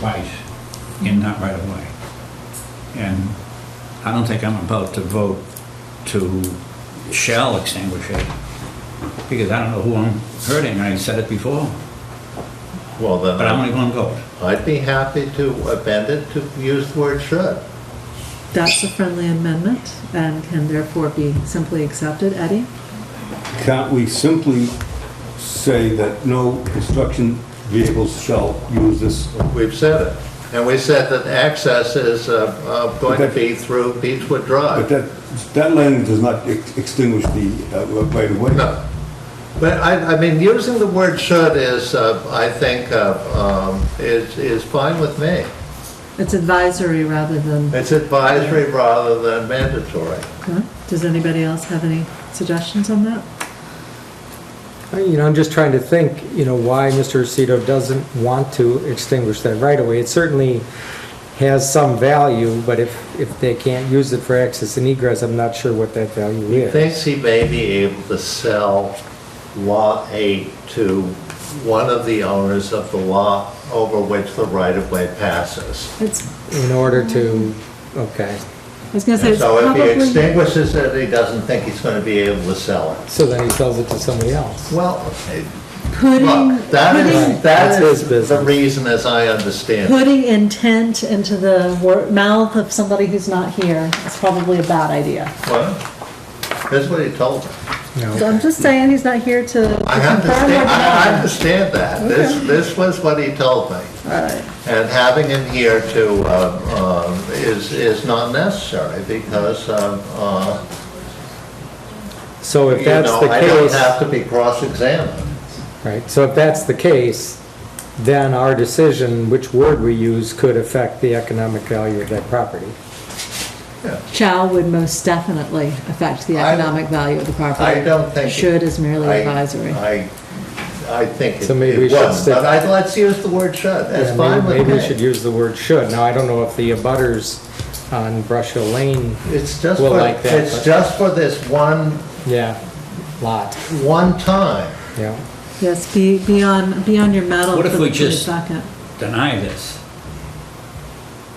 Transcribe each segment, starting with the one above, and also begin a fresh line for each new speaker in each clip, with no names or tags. right and not right of way. And I don't think I'm about to vote to shall extinguish it, because I don't know who I'm hurting, I said it before,
Well, then,
but I'm
I'd-
only one vote.
I'd be happy to amend it to use the word should.
That's a friendly amendment and can therefore be simply accepted. Eddie?
Can't we simply say that no construction vehicles shall use this?
We've said it. And we said that access is uh, uh, going to be through Beechwood
But
Drive.
that, that language does not ex- extinguish the uh, right of way.
No. But I, I mean, using the word should is, uh, I think, uh, um, is, is fine with me.
It's advisory rather than,
It's advisory rather than mandatory.
Huh? does anybody else have any suggestions on that?
I- You know, I'm just trying to think, you know, why Mr. Aceto doesn't want to extinguish that right away. It certainly has some value, but if, if they can't use it for access and egress, I'm not sure what that value is.
Thinks he may be able to sell Lot 8 to one of the owners of the lot over which the right-of-way passes.
It's,
In order to, okay,
I was gonna say,
And
it's
So if he
probably,
extinguishes it, he doesn't think he's going to be able to sell it.
so then he sells it to somebody else.
Well,
putting,
look, that is,
putting,
That's
that
his
is the
business.
reason as I understand. it.
putting intent into the wor- mouth of somebody who's not here is probably a bad idea.
Well, That's what he told me.
No.
So I'm just saying, he's not here to to confirm or
I understand, I I
deny.
understand that. This, this was what he told me.
All right.
And having him here to, uh, um, is, is not necessary because, um, uh,
So
you
if that's
know,
the
I don't have to
case,
be cross-examined.
right, so if that's the case, then our decision, which word we use, could affect the economic value of that property.
Shall would most definitely affect the
I-
economic value of the property.
I don't think. it-
Should is merely
I-
advisory.
I, I think it
So maybe we
it
should
was,
stick-
but I, let's use the word should, that's
Yeah,
fine
maybe-
with
Maybe we should
me.
use the word should. Now, I don't know if the abutters on Brush Hill Lane,
It's just
Well,
for,
like that,
it's
but-
just for this one,
yeah, lot,
one time.
yeah.
Yes, be, be on, be on your metal
What
for
if
for
we
a
just-
second.
Deny this.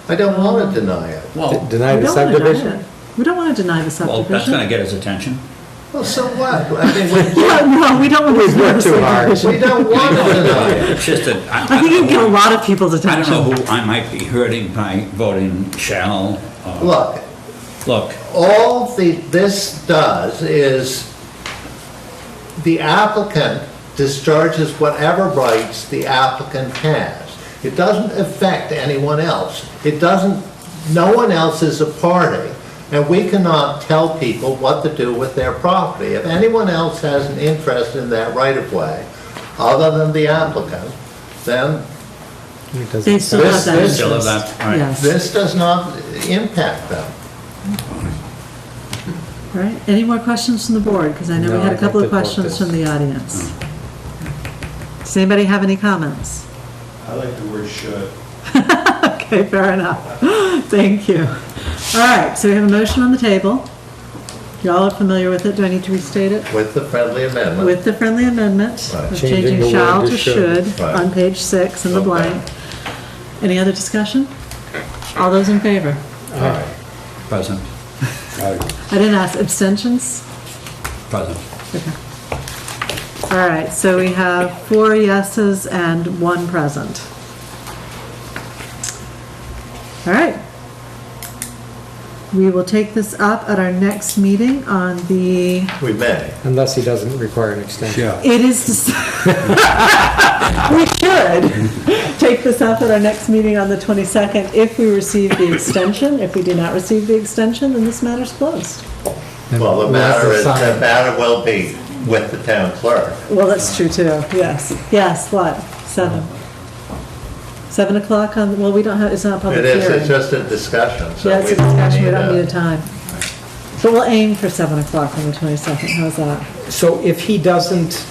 I don't want to deny it.
Well,
Deny
We
the
don't wanna deny
subdivision?
it. We don't want to deny the
well,
subdivision.
that's gonna get his attention.
Well, so what? I mean, we-
Yeah, no, we don't want to
We've
deny the
worked too hard.
subdivision.
we don't want to deny it.
It's just that, I
I
I
think
don't
you'd get a
know,
lot of people's
who- I don't
attention.
know who I might be hurting by voting shall, or,
Look,
look,
all the, this does is the applicant discharges whatever rights the applicant has. It doesn't affect anyone else. It doesn't, no one else is a party, and we cannot tell people what to do with their property. If anyone else has an interest in that right-of-way, other than the applicant, then
It doesn't
They still have
This-
that
this-
interest.
still have that, right.
Yes,
this does not impact them.
right. Any more questions from the board? Because I know we
No,
had
I
a
think
couple of
they've worked
questions
this.
from the audience.
Mm.
Does anybody have any comments?
I like the word should.
Okay, fair enough. Thank you. All right, so we have a motion on the table. Y'all are familiar with it. Do I need to restate it?
With the friendly amendment.
With the friendly amendment
Right.
of
Changing
changing
the word
shall
to
to
should.
should
Right.
on page six in the
Okay.
blank. Any other discussion? All those in favor?
present,
I-
I didn't ask, abstentions?
present.
All right, so we have four yeses and one present. All right. We will take this up at our next meeting on the,
We may.
Unless he doesn't require an extension.
Yeah.
it is, we should take this up at our next meeting on the 22nd if we receive the extension. If we do not receive the extension, then this matter's closed.
Well, the
We'll have to
matter is, the
sign.
matter will be with the town clerk.
Well, that's true too, yes. Yes, what, seven? Seven o'clock on, well, we don't have, it's not a public
It
hearing.
is, it's just a discussion, so
Yeah, it's
we
a
don't
discussion, we
need
don't need a
a...
time. But we'll aim for 7 o'clock on the 22nd, how's that?
So if he doesn't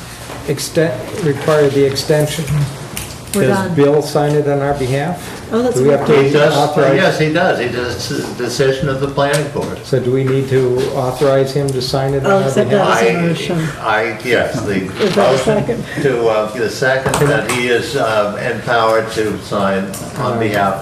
extend, require the extension,
We're
Does
done.
Bill sign it on our behalf?
Oh, that's
Do we have
good.
to
He does,
authorize-
yes, he does, he does, it's a decision of the planning board.
So do we need to authorize him to sign it on
I'll
our
accept
behalf?
that. was a
I-
motion.
I, yes, the
Is there a
motion
second?
to, uh, the second, that he is uh, empowered to sign on behalf